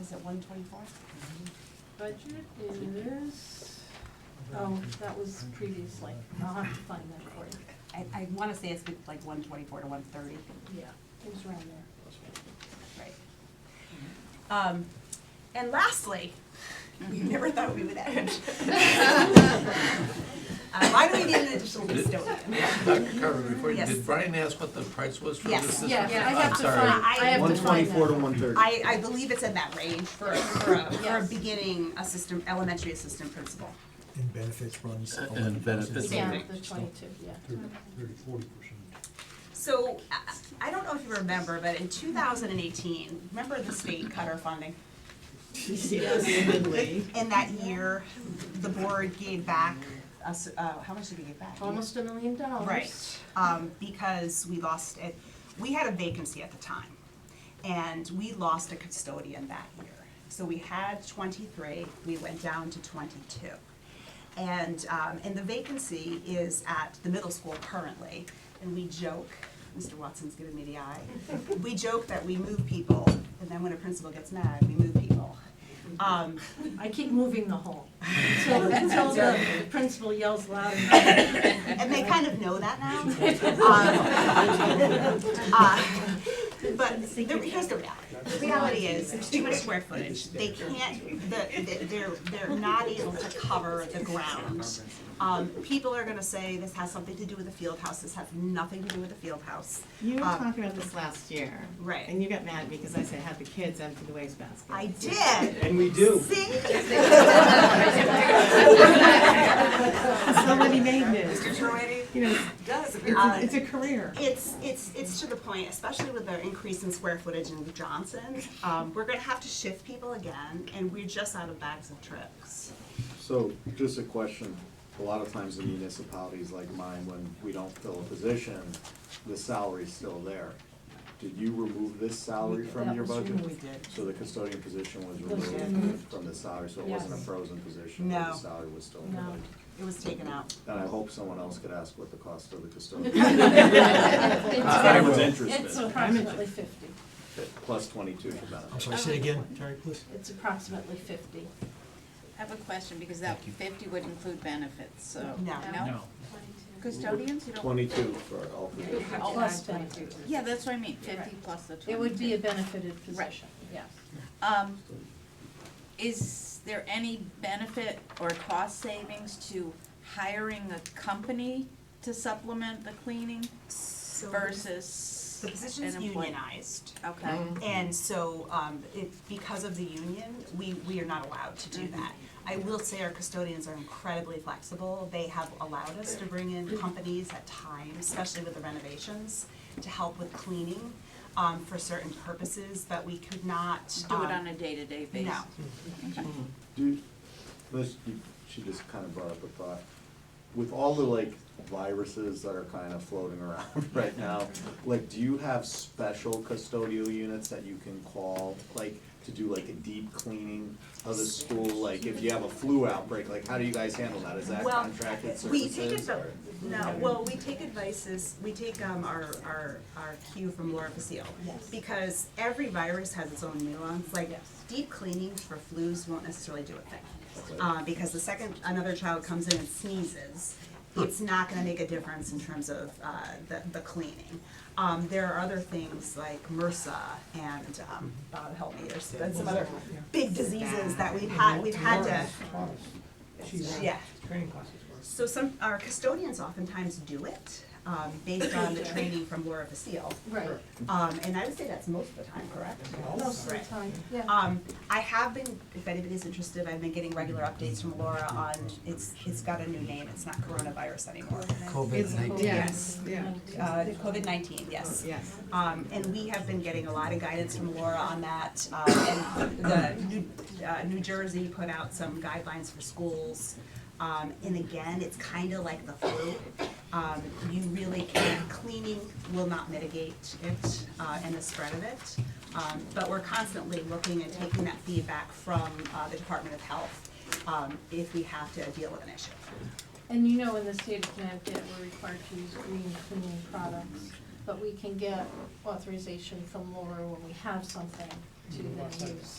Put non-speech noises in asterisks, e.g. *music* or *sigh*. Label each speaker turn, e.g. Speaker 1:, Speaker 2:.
Speaker 1: is it one twenty-four?
Speaker 2: Budget is, oh, that was previously, I'll have to find that for you.
Speaker 1: I, I wanna say it's like one twenty-four to one thirty,
Speaker 2: Yeah, it was around *coughs* there.
Speaker 1: right? Um, and lastly, you never thought we would end. Uh, why do we need an additional custodian?
Speaker 3: *laughs* Dr. Carver, before you,
Speaker 1: Yes.
Speaker 3: did Brian ask what the price was for
Speaker 1: Yes.
Speaker 3: this? This is-
Speaker 2: Yeah, I
Speaker 3: I'm
Speaker 2: have to
Speaker 3: sorry.
Speaker 2: find, I have to
Speaker 4: One
Speaker 2: find
Speaker 4: twenty-four to
Speaker 2: that.
Speaker 4: one thirty.
Speaker 1: I, I believe it's in that range for, for a, for a
Speaker 2: Yes.
Speaker 1: beginning assistant, elementary assistant principal.
Speaker 5: And benefits runs.
Speaker 3: And
Speaker 5: 11,000.
Speaker 3: benefits
Speaker 2: Yeah,
Speaker 3: Right.
Speaker 2: the twenty-two, yeah.
Speaker 6: Thirty, forty percent.
Speaker 1: So, I- I don't know if you remember, but in two thousand and eighteen, remember the state cut our funding? In that year, the board gave back, us, uh, how much did we give back?
Speaker 2: Almost a million dollars.
Speaker 1: Right, um, because we lost it, we had a vacancy at the time, and we lost a custodian that year. So we had twenty-three, we went down to twenty-two. And, um, and the vacancy is at the middle school currently, and we joke, Mr. Watson's giving me the eye. We joke that we move people, and then when a principal gets mad, we move people. Um,
Speaker 2: I keep moving the hole, *laughs* until, until the principal yells *laughs* loud enough.
Speaker 1: and they kind of know that now. Um, uh, But the- here's the reality. The reality is, there's too much square footage. They can't, the- the- they're, they're not able to cover the ground. Um, People are gonna say this has something to do with the field house, this has nothing to do with the field house.
Speaker 7: You were
Speaker 1: Um,
Speaker 7: talking about this last year.
Speaker 1: Right.
Speaker 7: And you got mad because I said, have the kids empty the wastebasket.
Speaker 1: I did,
Speaker 4: And we do.
Speaker 7: *laughs*
Speaker 1: see?
Speaker 7: Somebody made this.
Speaker 1: Mr. Troy,
Speaker 7: You know,
Speaker 1: does.
Speaker 7: it's, it's
Speaker 1: Uh,
Speaker 7: a career.
Speaker 1: It's, it's, it's to the point, especially with the increase in square footage in Johnson, um, we're gonna have to shift people again, and we're just out of bags of tricks.
Speaker 4: So, just a question, a lot of times in municipalities like mine, when we don't fill a position, the salary's still there. Did you remove this salary from your budget?
Speaker 1: did.
Speaker 4: So the custodian position was
Speaker 2: was
Speaker 4: removed from the salary, so it wasn't a
Speaker 2: Yes.
Speaker 4: frozen position, but
Speaker 1: No.
Speaker 4: the salary was still in the
Speaker 2: No.
Speaker 4: budget?
Speaker 1: It was taken out.
Speaker 4: And I hope someone else could ask what the cost of the
Speaker 2: *laughs*
Speaker 4: custodian, I was
Speaker 2: It's
Speaker 4: interested,
Speaker 2: approximately fifty,
Speaker 4: plus twenty-two for
Speaker 5: I'm
Speaker 4: benefits.
Speaker 5: sorry, say it again, Terry, please.
Speaker 2: it's approximately fifty.
Speaker 8: I have a question, because that fifty would include benefits, so.
Speaker 1: No.
Speaker 6: No.
Speaker 8: Custodians, you don't,
Speaker 4: Twenty-two for all positions.
Speaker 2: Plus benefit.
Speaker 8: yeah, that's what I mean, fifty plus the twenty.
Speaker 2: It would be a benefited position, yes.
Speaker 8: Um, is there any benefit or cost savings to hiring a company to supplement the cleaning versus
Speaker 1: The
Speaker 8: an
Speaker 1: position's
Speaker 8: employee?
Speaker 1: unionized,
Speaker 8: Okay,
Speaker 1: and so, um, it, because of the union, we, we are not allowed to do
Speaker 8: Mm-hmm.
Speaker 1: that. I will say our custodians are incredibly flexible, they have allowed us to bring
Speaker 8: Mm-hmm.
Speaker 1: in companies at times, especially with the renovations, to help with cleaning, um, for certain purposes, but we could not,
Speaker 8: do
Speaker 1: um,
Speaker 8: it on a day-to-day basis?
Speaker 1: No.
Speaker 4: Do, this, you- she just kind of brought up a thought. With all the like viruses that are kind of floating *laughs* around right now, like, do you have special custodial units that you can call? Like, to do like a deep cleaning of the school, like if you have a flu outbreak, like how do you guys handle that? Is that
Speaker 1: Well,
Speaker 4: contracted services?
Speaker 1: We take it,
Speaker 4: or-
Speaker 1: no, well, we take advices, we take um our our our cue from Laura Basile.
Speaker 2: Yes.
Speaker 1: Because every virus has its own nuance, like
Speaker 2: Yes.
Speaker 1: deep cleanings for flus won't necessarily do a thing. Uh, because the second another child comes in and sneezes, it's not gonna make a difference in terms of uh the the cleaning. Um, there are other things like MRSA and um,
Speaker 4: Mm-hmm.
Speaker 1: Bob help me, there's been some other big diseases that we've had, we've had to, yeah.
Speaker 9: training classes were.
Speaker 1: So some, our custodians oftentimes do it, um, based on the training from Laura Vasile.
Speaker 2: Right.
Speaker 1: Um, and I would say that's most of the time, correct?
Speaker 2: Most of the time, yeah.
Speaker 1: Um, I have been, if anybody's interested, I've been getting regular updates from Laura on, it's, it's got a new name, it's not coronavirus anymore.
Speaker 5: COVID nineteen.
Speaker 7: Yes, yeah,
Speaker 1: Uh, COVID nineteen, yes.
Speaker 7: yes.
Speaker 1: Um, and we have been getting a lot of guidance from Laura on that, um, and the New, uh, New Jersey put out some guidelines for schools. Um, and again, it's kinda like the flu, um, you really can't, cleaning will not mitigate it, uh, and the spread of it. Um, but we're constantly looking and taking that feedback from, uh, the Department of Health, um, if we have to deal with an issue.
Speaker 2: And you know, in the state of Connecticut, we're required to use green cleaning products, but we can get authorization from Laura when we have something to then use